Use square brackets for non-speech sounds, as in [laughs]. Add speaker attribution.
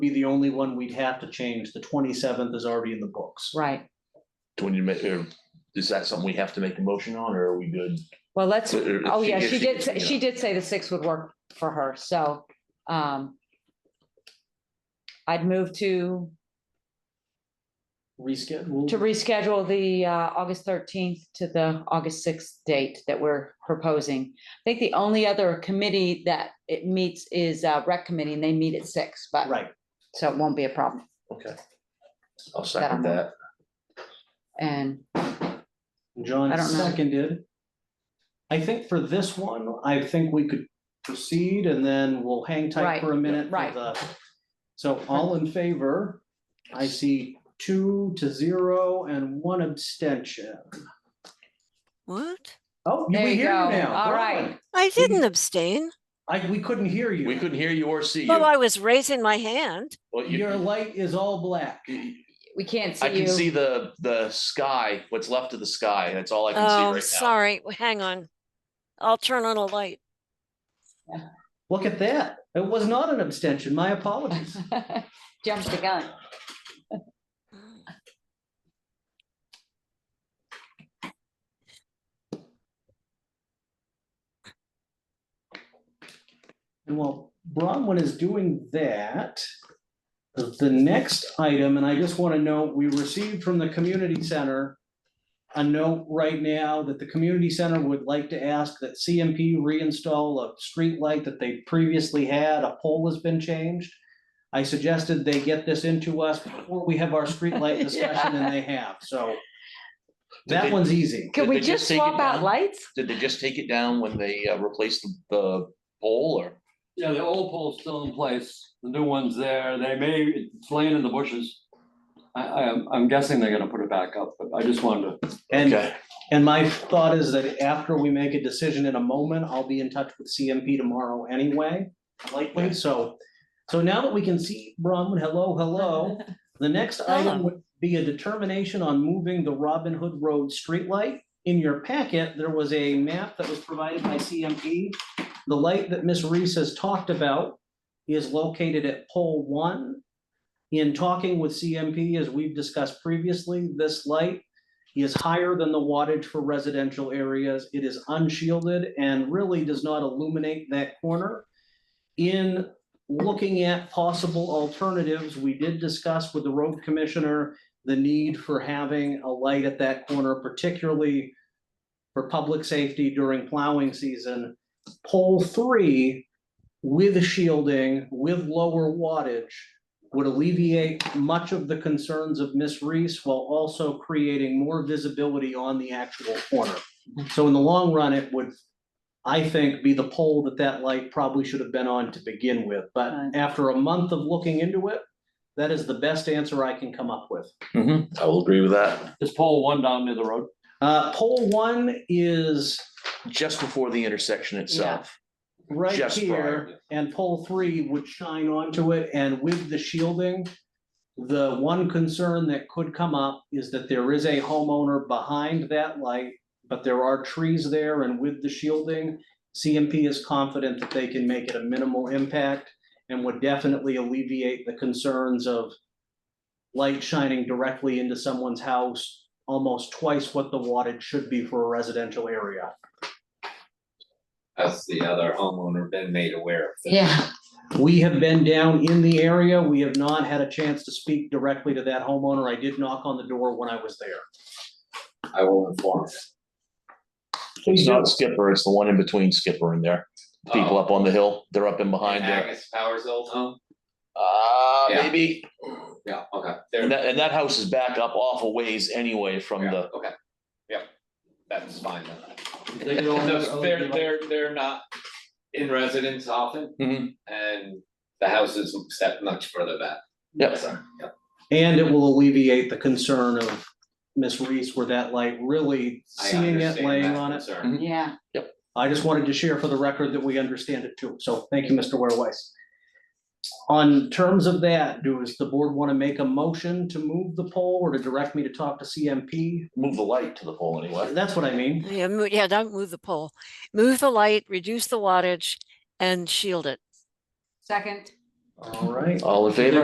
Speaker 1: be the only one we'd have to change. The twenty-seventh is already in the books.
Speaker 2: right.
Speaker 3: When you make, or is that something we have to make a motion on, or are we good?
Speaker 2: Well, let's,
Speaker 3: Or- or
Speaker 2: oh, yeah,
Speaker 3: if
Speaker 2: she did, say-
Speaker 3: yeah.
Speaker 2: she did say the six would work for her, so, um. I'd move to,
Speaker 1: Reschedule.
Speaker 2: to reschedule the, uh, August thirteenth to the August sixth date that we're proposing. I think the only other committee that it meets is, uh, rec committee, and they meet at six, but,
Speaker 1: Right.
Speaker 2: so it won't be a problem,
Speaker 3: Okay. I'll second that.
Speaker 2: and.
Speaker 1: John
Speaker 2: I don't know.
Speaker 1: seconded. I think for this one, I think we could proceed and then we'll hang tight
Speaker 2: Right,
Speaker 1: for a minute. for
Speaker 2: right.
Speaker 1: the- So all in favor, I see two to zero and one abstention.
Speaker 4: What?
Speaker 1: Oh, you
Speaker 2: There
Speaker 1: were
Speaker 2: you
Speaker 1: here
Speaker 2: go.
Speaker 1: now.
Speaker 2: All
Speaker 1: Bravo.
Speaker 2: right.
Speaker 4: I
Speaker 3: Mm-hmm.
Speaker 4: didn't abstain.
Speaker 1: I, we couldn't hear you.
Speaker 3: We couldn't hear you or see you.
Speaker 4: Well, I was raising
Speaker 3: [laughs]
Speaker 4: my hand.
Speaker 3: Well, you-
Speaker 1: Your light is all black.
Speaker 3: you-
Speaker 2: We can't see
Speaker 3: I
Speaker 2: you.
Speaker 3: can
Speaker 2: [laughs]
Speaker 3: see the, the sky, what's left of the sky. That's all I can see
Speaker 4: Oh,
Speaker 3: right now.
Speaker 4: sorry. W- Hang on. I'll turn on a light.
Speaker 1: Look at that. It was not an abstention. My apologies.
Speaker 2: Jumped the gun.
Speaker 3: Mm-hmm.
Speaker 1: And while Bronwyn is doing that, the the next item, and I just want to note, we received from the community center a note right now that the community center would like to ask that CMP reinstall a street light that they previously had. A pole has been changed. I suggested they get this into us before we have our street light discussion, and they have, so
Speaker 3: Did
Speaker 1: that
Speaker 3: they-
Speaker 1: one's easy.
Speaker 2: Could
Speaker 3: Did
Speaker 2: we
Speaker 3: they just
Speaker 2: just
Speaker 3: take it
Speaker 2: swap out
Speaker 3: down?
Speaker 2: lights?
Speaker 3: Did they just take it down when they uh, replaced the- the pole or?
Speaker 5: Yeah, the old pole's still in place, the new one's there, they may, it's laying in the bushes. I, I, am- I'm guessing they're gonna put it back up, but I just wanted to,
Speaker 1: And And my thought is that after we make a decision in a moment, I'll be in touch with CMP tomorrow anyway, likely, so. So now that we can see Bronwyn, hello, hello, the next item
Speaker 4: Hello.
Speaker 1: would be a determination on moving the Robin Hood Road streetlight. In your packet, there was a map that was provided by CMP. The light that Miss Reese has talked about is located at pole one. In talking with CMP, as we've discussed previously, this light is higher than the wattage for residential areas. It is unshielded and really does not illuminate that corner. In looking at possible alternatives, we did discuss with the road commissioner the need for having a light at that corner, particularly for public safety during plowing season. Pole three with shielding, with lower wattage, would alleviate much of the concerns of Miss Reese while also creating more visibility on the actual corner. So in the long run, it would, I think, be the pole that that light probably should have been on to begin with. But
Speaker 2: Right.
Speaker 1: after a month of looking into it, that is the best answer I can come up with.
Speaker 3: Mm-hmm. I will agree with that.
Speaker 5: is pole one down near the road?
Speaker 1: Uh, pole one is
Speaker 3: Just before the intersection itself.
Speaker 1: right
Speaker 3: Just prior,
Speaker 1: here, and pole three would shine onto it, and with the shielding, the one concern that could come up is that there is a homeowner behind that light, but there are trees there, and with the shielding, CMP is confident that they can make it a minimal impact and would definitely alleviate the concerns of light shining directly into someone's house, almost twice what the wattage should be for a residential area.
Speaker 6: Has the other homeowner been made aware of this?
Speaker 2: Yeah.
Speaker 1: We have been down in the area. We have not had a chance to speak directly to that homeowner. I did knock on the door when I was there.
Speaker 6: I will inform.
Speaker 3: It's not Skipper, it's the one in between Skipper and there. People
Speaker 6: Oh.
Speaker 3: up on the hill, they're up in behind there.
Speaker 6: Agus Powers old home?
Speaker 3: Ah,
Speaker 6: Yeah.
Speaker 3: maybe.
Speaker 6: Yeah, okay. There-
Speaker 3: Oh, And that, and that house is back up awful ways anyway from
Speaker 6: yeah,
Speaker 3: the,
Speaker 6: Okay, yep, that's fine then.
Speaker 5: They could
Speaker 3: Oh,
Speaker 5: all-
Speaker 6: Those- They're, they're, they're not in residence often
Speaker 3: Mhm.
Speaker 6: and the house is set much further back.
Speaker 3: Yep.
Speaker 6: So, Yep,
Speaker 1: And it will alleviate the concern of Miss Reese where that light really
Speaker 6: I
Speaker 1: seeing it
Speaker 6: understand
Speaker 1: laying
Speaker 6: that
Speaker 1: on it.
Speaker 6: concern.
Speaker 3: Mhm.
Speaker 2: Yeah.
Speaker 1: I just wanted to share for the record that we understand it too. So thank you, Mr. Ware Weiss. On terms of that, does the board want to make a motion to move the poll or to direct me to talk to CMP?
Speaker 3: move the light to the pole anyway.
Speaker 1: That's what I mean.
Speaker 4: Yeah, mo- yeah, don't move the pole. Move the light, reduce the wattage and shield it.
Speaker 2: Second.
Speaker 1: All right.
Speaker 3: All in favor?